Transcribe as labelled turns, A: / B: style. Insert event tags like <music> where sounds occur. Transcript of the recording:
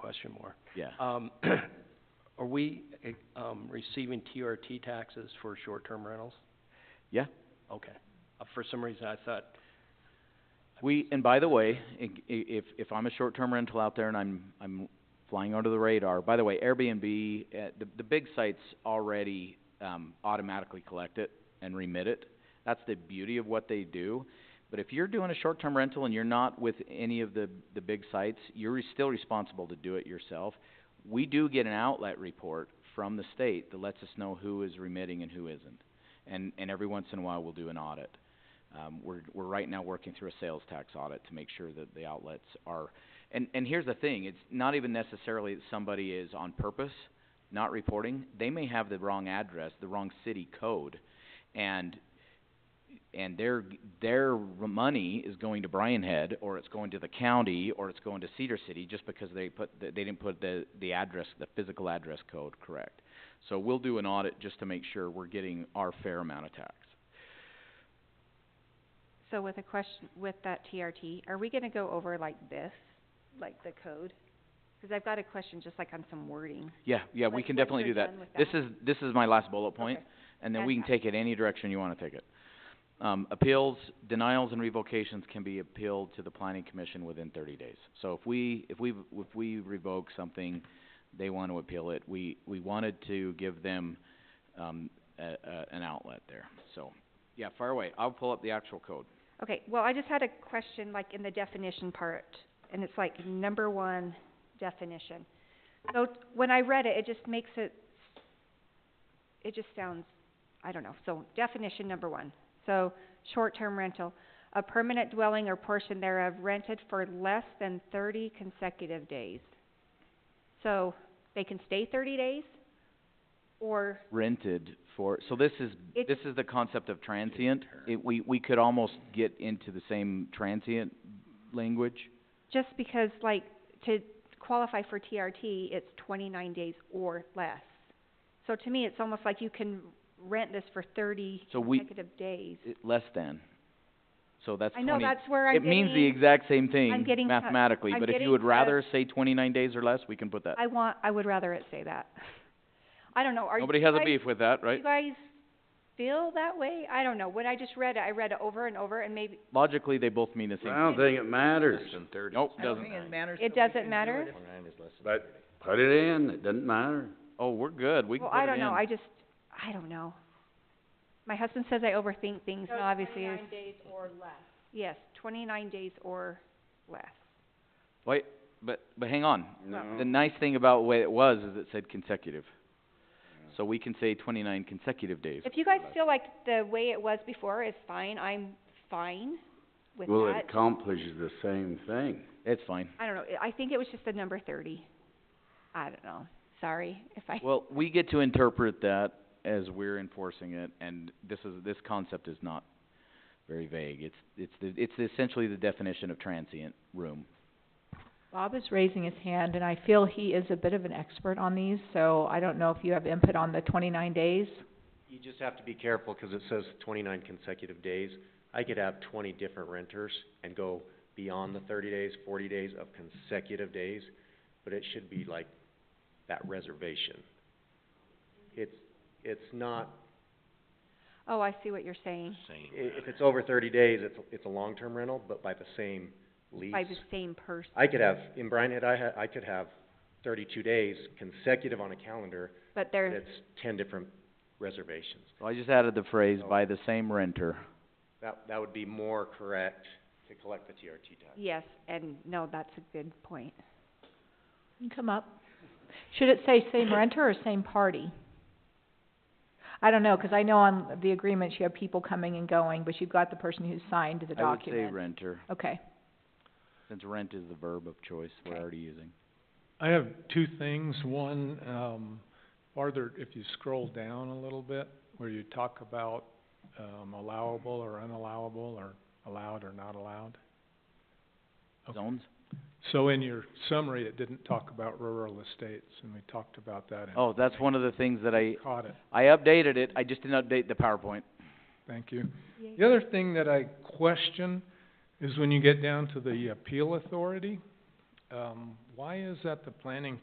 A: question more.
B: Yeah.
A: Um, <clears throat> are we, eh, um, receiving TRT taxes for short-term rentals?
B: Yeah.
A: Okay. Uh, for some reason, I thought,
B: We, and by the way, i- i- if, if I'm a short-term rental out there and I'm, I'm flying under the radar, by the way, Airbnb, uh, the, the big sites already, um, automatically collect it and remit it. That's the beauty of what they do. But if you're doing a short-term rental and you're not with any of the, the big sites, you're re- still responsible to do it yourself. We do get an outlet report from the state that lets us know who is remitting and who isn't. And, and every once in a while, we'll do an audit. Um, we're, we're right now working through a sales tax audit to make sure that the outlets are, and, and here's the thing, it's not even necessarily that somebody is on purpose not reporting. They may have the wrong address, the wrong city code, and, and their, their money is going to Bryan Head, or it's going to the county, or it's going to Cedar City, just because they put, the- they didn't put the, the address, the physical address code correct. So we'll do an audit just to make sure we're getting our fair amount of tax.
C: So with a question, with that TRT, are we gonna go over like this, like the code? Cause I've got a question just like on some wording.
B: Yeah, yeah, we
C: Like,
B: can
C: once
B: definitely do
C: you're
B: that.
C: done with
B: This
C: that.
B: is, this is my last bullet point,
C: Okay.
B: and then we can
C: Gotcha.
B: take it any direction you wanna take it. Um, appeals, denials and revocations can be appealed to the planning commission within thirty days. So if we, if we, if we revoke something, they wanna appeal it, we, we wanted to give them, um, a, a, an outlet there, so. Yeah, fire away, I'll pull up the actual code.
C: Okay, well, I just had a question like in the definition part, and it's like number one definition. So t- when I read it, it just makes it, it just sounds, I don't know, so definition number one. So, short-term rental, a permanent dwelling or portion thereof rented for less than thirty consecutive days. So, they can stay thirty days, or
B: rented for, so this is,
C: It-
B: this is the concept of transient. It, we, we could almost get into the same transient language.
C: Just because like to qualify for TRT, it's twenty-nine days or less. So to me, it's almost like you can rent this for thirty
B: So we-
C: consecutive days.
B: It, less than. So that's
C: I
B: twenty.
C: know, that's where I'm
B: It means the
C: getting,
B: exact same thing
C: getting cut-
B: mathematically,
C: I'm
B: but if you
C: getting
B: would
C: cut.
B: rather say twenty-nine days or less, we can put that.
C: I want, I would rather it say that. <laughs> I don't know, are you
B: Nobody has a
C: guys-
B: beef with that,
C: do
B: right?
C: you guys feel that way? I don't know, when I just read it, I read it over and over and maybe,
B: Logically, they both mean the same.
D: I don't think it matters.
E: Less than thirty.
B: Nope,
E: I don't
B: doesn't.
E: think it
C: it doesn't matter?
E: Twenty-nine is less than
D: But put it in, it doesn't matter.
B: Oh, we're good, we can
C: Well,
B: put it
C: I
B: in.
C: don't know, I just, I don't know. My husband says I overthink things, and obviously it's-
F: days or less.
C: yes, twenty-nine days or less.
B: Wait, but, but hang on.
D: No.
B: The nice thing about the way it was is it said consecutive. So we can say twenty-nine consecutive days.
C: If you guys feel like the way it was before is fine, I'm fine with
D: Well, it
C: that.
D: accomplishes the same thing.
B: It's fine.
C: I don't know, I think it was just the number thirty. I don't know, sorry if I,
B: Well, we get to interpret that as we're enforcing it, and this is, this concept is not very vague. It's, it's the, it's essentially the definition of transient room.
F: Bob is raising his hand, and I feel he is a bit of an expert on these, so I don't know if you have input on the twenty-nine days.
G: You just have to be careful, 'cause it says twenty-nine consecutive days. I could have twenty different renters and go beyond the thirty days, forty days of consecutive days, but it should be like that reservation. It's, it's not,
C: oh, I see what you're saying,
E: the same.
G: i- if it's over thirty days, it's, it's a long-term rental, but by the same lease.
C: by the same person,
G: I could have, in Bryan Head, I ha- I could have thirty-two days consecutive on a calendar,
C: but they're,
G: that's ten different reservations.
B: So I just added the phrase, by the same renter.
G: That, that would be more correct to collect the TRT tax.
C: yes, and no, that's a good point.
F: You can Come up. Should it say same renter or same party? I don't know, 'cause I know on the agreements you have people coming and going, but you've got the person who signed the
B: I would
F: document.
B: say renter,
F: Okay.
B: since rent is the verb of choice we're
F: Okay.
B: already using.
H: I have two things. One, um, farther, if you scroll down a little bit, where you talk about, um, allowable or unallowable, or allowed or not allowed. Okay.
B: Zones?
H: So in your summary, it didn't talk about rural estates, and we talked about that and
B: Oh, that's one of the things that I,
H: caught it.
B: I updated it, I just didn't update the PowerPoint.
H: Thank you. The other thing that I question is when you get down to the appeal authority, um, why is that the planning